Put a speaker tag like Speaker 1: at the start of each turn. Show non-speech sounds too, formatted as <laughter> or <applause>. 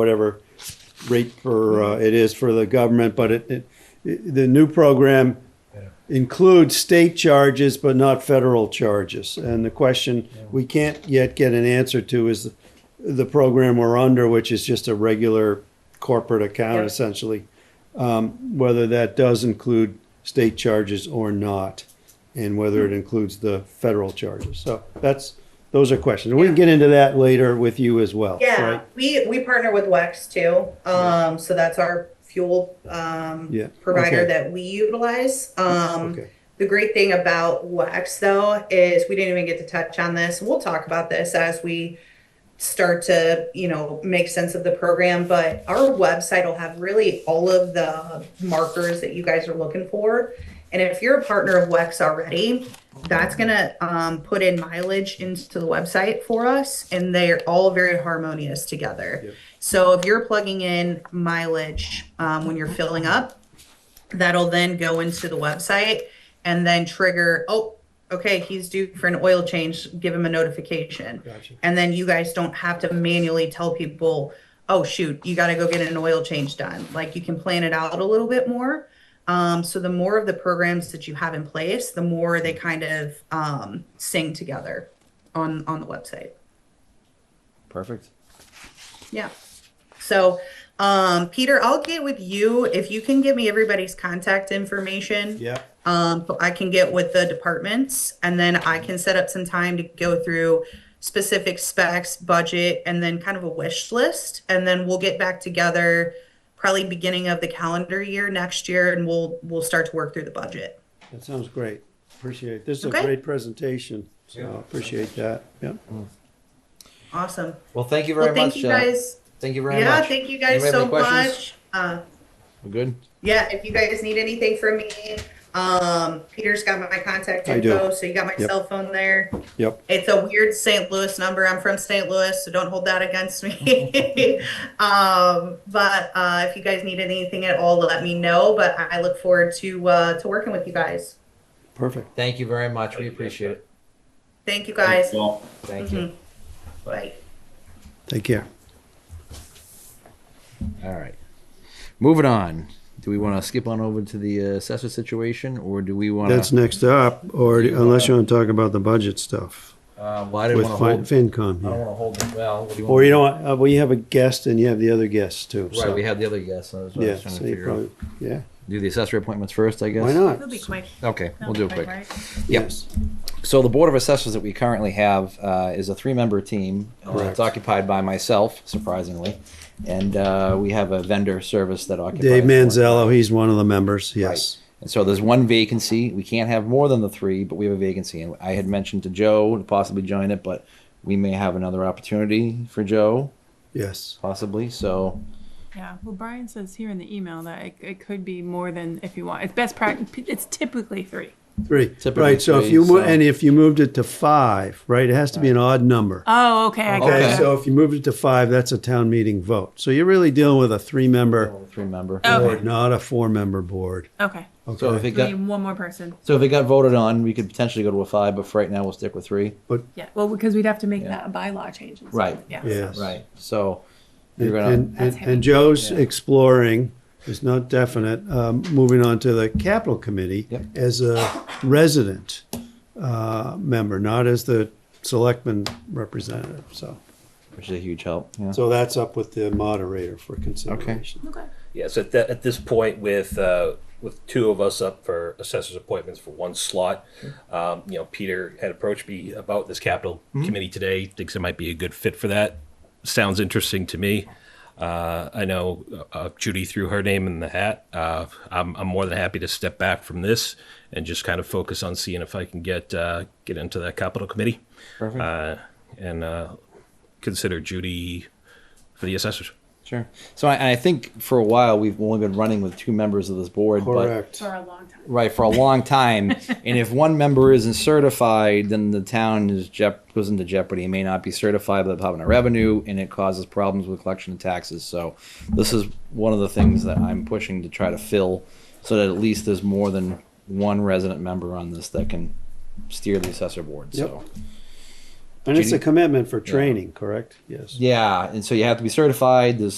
Speaker 1: whatever rate for, uh, it is for the government, but it, it, the new program includes state charges but not federal charges. And the question we can't yet get an answer to is the, the program we're under, which is just a regular corporate account
Speaker 2: Yep.
Speaker 1: essentially, um, whether that does include state charges or not, and whether it includes the federal charges. So that's, those are questions. We can get into that later with you as well,
Speaker 2: Yeah,
Speaker 1: right?
Speaker 2: we, we partner with WEX too. Um, so that's our fuel, um,
Speaker 1: Yeah,
Speaker 2: provider
Speaker 1: okay.
Speaker 2: that we utilize. Um,
Speaker 1: Okay.
Speaker 2: the great thing about WEX though is we didn't even get to touch on this. We'll talk about this as we start to, you know, make sense of the program, but our website will have really all of the markers that you guys are looking for. And if you're a partner of WEX already, that's gonna um, put in mileage into the website for us, and they're all very harmonious together.
Speaker 1: Yep.
Speaker 2: So if you're plugging in mileage um, when you're filling up, that'll then go into the website and then trigger. Oh, okay, he's due for an oil change. Give him a notification,
Speaker 1: Gotcha.
Speaker 2: and then you guys don't have to manually tell people. Oh shoot, you got to go get an oil change done. Like you can plan it out a little bit more. Um, so the more of the programs that you have in place, the more they kind of um, sing together on on the website.
Speaker 3: Perfect.
Speaker 2: Yeah. So, um, Peter, I'll get with you if you can give me everybody's contact information.
Speaker 1: Yeah.
Speaker 2: Um, so I can get with the departments and then I can set up some time to go through specific specs, budget, and then kind of a wish list. And then we'll get back together probably beginning of the calendar year next year and we'll we'll start to work through the budget.
Speaker 1: That sounds great. Appreciate it. This is a
Speaker 2: Okay.
Speaker 1: great presentation, so I appreciate that. Yeah.
Speaker 2: Awesome.
Speaker 3: Well, thank you very
Speaker 2: Well, thank
Speaker 3: much.
Speaker 2: you
Speaker 3: uh,
Speaker 2: guys.
Speaker 3: thank you very
Speaker 2: Yeah,
Speaker 3: much.
Speaker 2: thank you guys
Speaker 3: Anybody have
Speaker 2: so
Speaker 3: any questions?
Speaker 2: much. Uh,
Speaker 3: We're good.
Speaker 2: yeah if you guys need anything from me um peter's got my contact
Speaker 1: I do.
Speaker 2: info so you got my
Speaker 1: Yep.
Speaker 2: cell phone there
Speaker 1: Yep.
Speaker 2: it's a weird st louis number i'm from st louis so don't hold that against me <laughs> um but uh if you guys need anything at all let me know but i I look forward to uh to working with you guys
Speaker 1: Perfect.
Speaker 3: Thank you very much. We appreciate it.
Speaker 2: thank you guys
Speaker 4: Well,
Speaker 3: Thank you.
Speaker 2: Mhm. bye
Speaker 1: Take care.
Speaker 2: Mm-hmm.
Speaker 3: All right. Moving on. Do we want to skip on over to the uh, assessor situation, or do we want
Speaker 1: That's
Speaker 3: to?
Speaker 1: next up, or unless you want to talk about the budget stuff
Speaker 3: Uh, well, I didn't
Speaker 1: with
Speaker 3: want to hold.
Speaker 1: Fin- FinCom.
Speaker 3: I don't
Speaker 1: yeah.
Speaker 3: want to hold it. Well, what do you
Speaker 1: Or you
Speaker 3: want?
Speaker 1: know, what, uh, well, you have a guest and you have the other guests too.
Speaker 3: Right,
Speaker 1: so-
Speaker 3: we have the other guests. So I was I was
Speaker 1: Yeah,
Speaker 3: trying
Speaker 1: so
Speaker 3: to
Speaker 1: you
Speaker 3: figure out.
Speaker 1: probably, yeah,
Speaker 3: Do the assessor appointments first, I guess.
Speaker 1: why not?
Speaker 5: It'll be quick.
Speaker 3: Okay, we'll do it quick. Yep.
Speaker 1: Yes,
Speaker 3: So the board of assessors that we currently have uh, is a three-member team. Uh,
Speaker 1: Correct.
Speaker 3: It's occupied by myself, surprisingly, and uh, we have a vendor service that occupies.
Speaker 1: Dave Manzello, he's one of the members, yes.
Speaker 3: And so there's one vacancy. We can't have more than the three, but we have a vacancy. And I had mentioned to Joe to possibly join it, but we may have another opportunity for Joe,
Speaker 1: Yes,
Speaker 3: possibly. So
Speaker 5: Yeah. Well, Brian says here in the email that it, it could be more than if you want. It's best practice. It's typically three.
Speaker 1: three,
Speaker 3: Typically
Speaker 1: right, so if
Speaker 3: three,
Speaker 1: you, mo-
Speaker 3: so-
Speaker 1: and if you moved it to five, right, it has to be an odd number.
Speaker 5: Oh, okay. I
Speaker 1: Okay,
Speaker 5: gotcha.
Speaker 1: so if you moved it to five, that's a town meeting vote. So you're really dealing with a three-member
Speaker 3: three-member.
Speaker 5: Okay.
Speaker 1: board, not a four-member board.
Speaker 5: Okay.
Speaker 3: So if
Speaker 1: Okay,
Speaker 3: it
Speaker 5: We
Speaker 3: got
Speaker 5: need one more person.
Speaker 3: so if it got voted on, we could potentially go to a five, but for right now we'll stick with three.
Speaker 5: Yeah. Well, because we'd have to make
Speaker 3: Yeah.
Speaker 5: that a bylaw change. and stuff.
Speaker 3: Right.
Speaker 5: Yeah.
Speaker 1: yes.
Speaker 3: Right. So you're
Speaker 1: And,
Speaker 3: gonna.
Speaker 1: and,
Speaker 5: That's
Speaker 1: and-
Speaker 5: heavy.
Speaker 1: and Joe's
Speaker 3: Yeah.
Speaker 1: exploring, it's not definite, um, moving on to the capital committee
Speaker 3: Yep.
Speaker 1: as a resident, uh, member, not as the selectman representative, so.
Speaker 3: which is a huge help. Yeah.
Speaker 1: So that's up with the moderator for consideration.
Speaker 5: Okay.
Speaker 6: Yeah, so at, that, at this point, with uh, with two of us up for assessors appointments for one slot, um, you know, Peter had approached me about this capital committee today. Thinks it might be a good fit for that. Sounds interesting to me. Uh, I know uh, Judy threw her name in the hat. Uh, I'm, I'm more than happy to step back from this and just kind of focus on seeing if I can get uh, get into that capital committee
Speaker 3: Perfect.
Speaker 6: uh, and uh, consider Judy for the assessors.
Speaker 3: Sure. So I, I think for a while we've only been running with two members of this board.
Speaker 1: Correct.
Speaker 5: For a long time.
Speaker 3: But, right for a long time, and if one member isn't certified, then the town is jep- goes into jeopardy. It may not be certified by the Department of Revenue, and it causes problems with collection of taxes. So this is one of the things that I'm pushing to try to fill, so that at least there's more than one resident member on this that can steer the assessor board. So.
Speaker 1: And it's a
Speaker 3: Judy?
Speaker 1: commitment for training, correct? Yes.
Speaker 3: Yeah, and so you have to be certified. There's